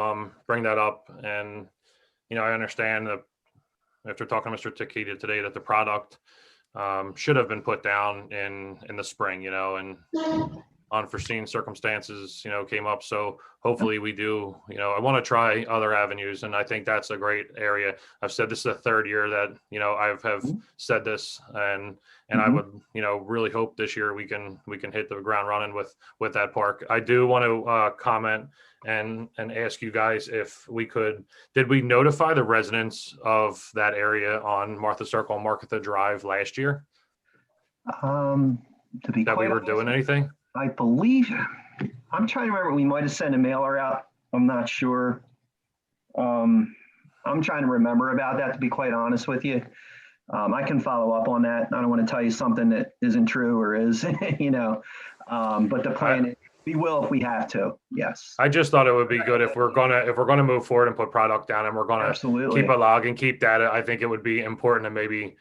um, bring that up. And, you know, I understand that after talking to Mr. Takeda today, that the product um, should have been put down in, in the spring, you know, and unforeseen circumstances, you know, came up. So hopefully we do, you know, I want to try other avenues. And I think that's a great area. I've said this is the third year that, you know, I've have Mhm. said this and, and I Mhm. would, you know, really hope this year we can, we can hit the ground running with, with that park. I do want to uh, comment and, and ask you guys if we could, did we notify the residents of that area on Martha Circle, and Martha Drive last year? Um, to be That we quite were doing honest, anything? I believe, I'm trying to remember, we might have sent a mailer out. I'm not sure. Um, I'm trying to remember about that, to be quite honest with you. Um, I can follow up on that. I don't want to tell you something that isn't true or is, you know. Um, but the plan, is we will if we have to. Yes, I just thought it would be good if we're gonna, if we're gonna move forward and put product down and we're gonna absolutely. keep a log and keep data, I think it would be important to maybe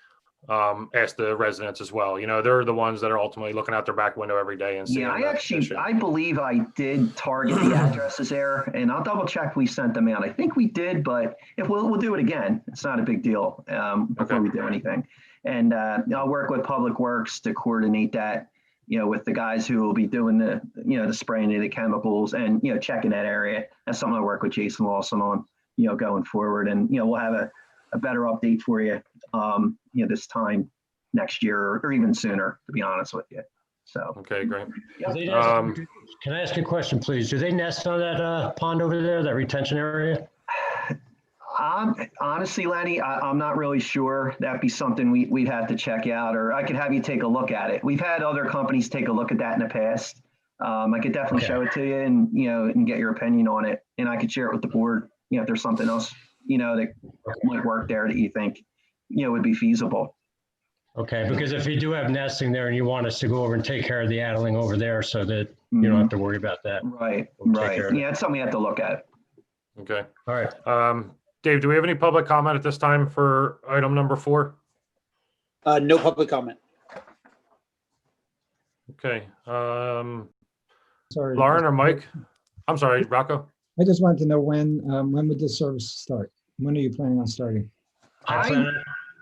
um, ask the residents as well. You know, they're the ones that are ultimately looking out their back window every day and seeing. Yeah, I the actually, condition. I believe I did target the addresses there, and I'll double check we sent them out. I think we did, but if we'll, we'll do it again. It's not a big deal um, before Okay. we do anything. And uh, I'll work with Public Works to coordinate that, you know, with the guys who will be doing the, you know, the spraying of the chemicals and, you know, checking that area. That's something I work with Jason Lawson on, you know, going forward. And, you know, we'll have a, a better update for you, um, you know, this time next year or even sooner, to be honest with you. So. Okay, great. Do they nest- Um, Can I ask you a question, please? Do they nest on that uh, pond over there, that retention area? Um, honestly, Lenny, I, I'm not really sure. That'd be something we, we'd have to check out, or I could have you take a look at it. We've had other companies take a look at that in the past. Um, I could definitely Okay. show it to you and, you know, and get your opinion on it. And I could share it with the board, you know, if there's something else, you know, that might work there that you think, you know, would be feasible. Okay, because if you do have nesting there and you want us to go over and take care of the addling over there so that you don't have to worry about that. Mm-hmm. Right, We'll take right. care of it. Yeah, it's something we have to look at. Okay. All right. Um, Dave, do we have any public comment at this time for item number four? Uh, no public comment. Okay, um, Sorry. Lauren or Mike? I'm sorry, Rocco. I just wanted to know when, um, when would this service start? When are you planning on starting? I I- plan, on-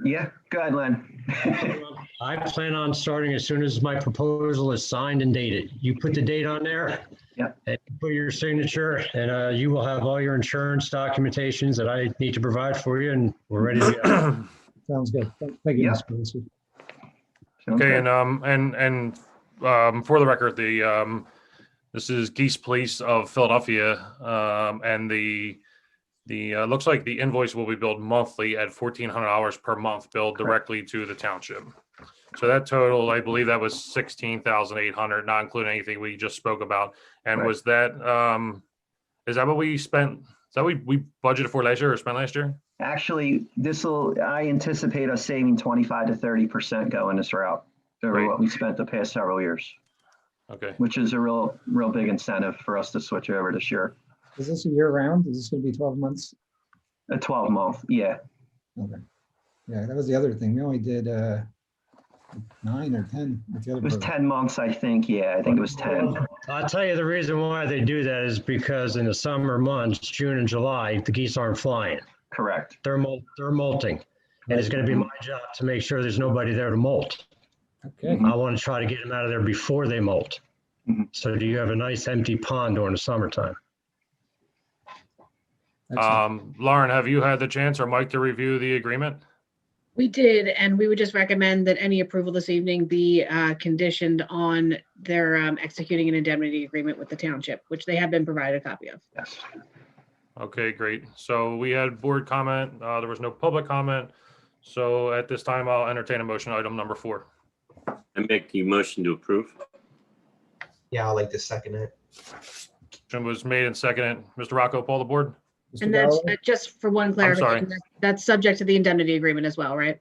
Yeah, go ahead, Len. I plan on starting as soon as my proposal is signed and dated. You put the date on there. Yep. And put your signature and uh, you will have all your insurance documentations that I need to provide for you and we're ready to go. Sounds good. Thank thank you, Yeah. Mr. Pelisi. Okay, and, um, and, and, um, for the record, the, um, this is Geese Police of Philadelphia, um, and the, the, uh, looks like the invoice will be billed monthly at fourteen hundred dollars per month billed directly to the township. So that total, I believe that was sixteen thousand eight hundred, not including anything we just spoke about. And Right. was that, um, is that what we spent, is that we, we budgeted for last year or spent last year? Actually, this will, I anticipate us saving twenty-five to thirty percent going this route over Great. what we spent the past several years, Okay, which is a real, real big incentive for us to switch over this year. Is this a year round? Is this going to be 12 months? A twelve month, yeah. Okay. Yeah, that was the other thing. We only did, uh, nine or 10 with the other. It was program. ten months, I think. Yeah, I think it was ten. I'll tell you the reason why they do that is because in the summer months, June and July, the geese aren't flying. Correct. They're molt, they're molting. And it's going to be my job to make sure there's nobody there to molt. Okay. I want to try to get them out of there before they molt. Mhm. So do you have a nice empty pond during the summertime? excellent. um, Lauren, have you had the chance or Mike to review the agreement? We did, and we would just recommend that any approval this evening be uh, conditioned on their um, executing an indemnity agreement with the township, which they have been provided a copy of. Yes. Okay, great. So we had board comment, uh, there was no public comment. So at this time, I'll entertain a motion item number four. I make the motion to approve. Yeah, I'll like to second it. Motion was made and seconded. Mr. Rocco, poll the board. Mr. And that's Galloway? uh, just for one sorry. clarification, that- that's subject to the indemnity agreement as well, right?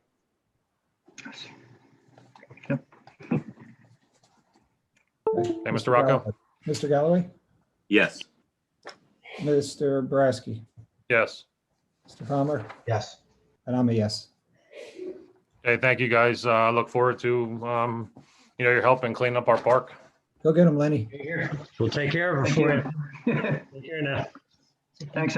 Hey, Mr. Rocco? Mr. Galloway, Yes. Mr. Boraski, Yes. Mr. Palmer, Yes. and I'm a yes. Hey, thank you, guys. Uh, I look forward to, um, you know, your help in cleaning up our park. Go get him, Lenny. We'll take care of Thank it for you. you. Take care now. Thanks,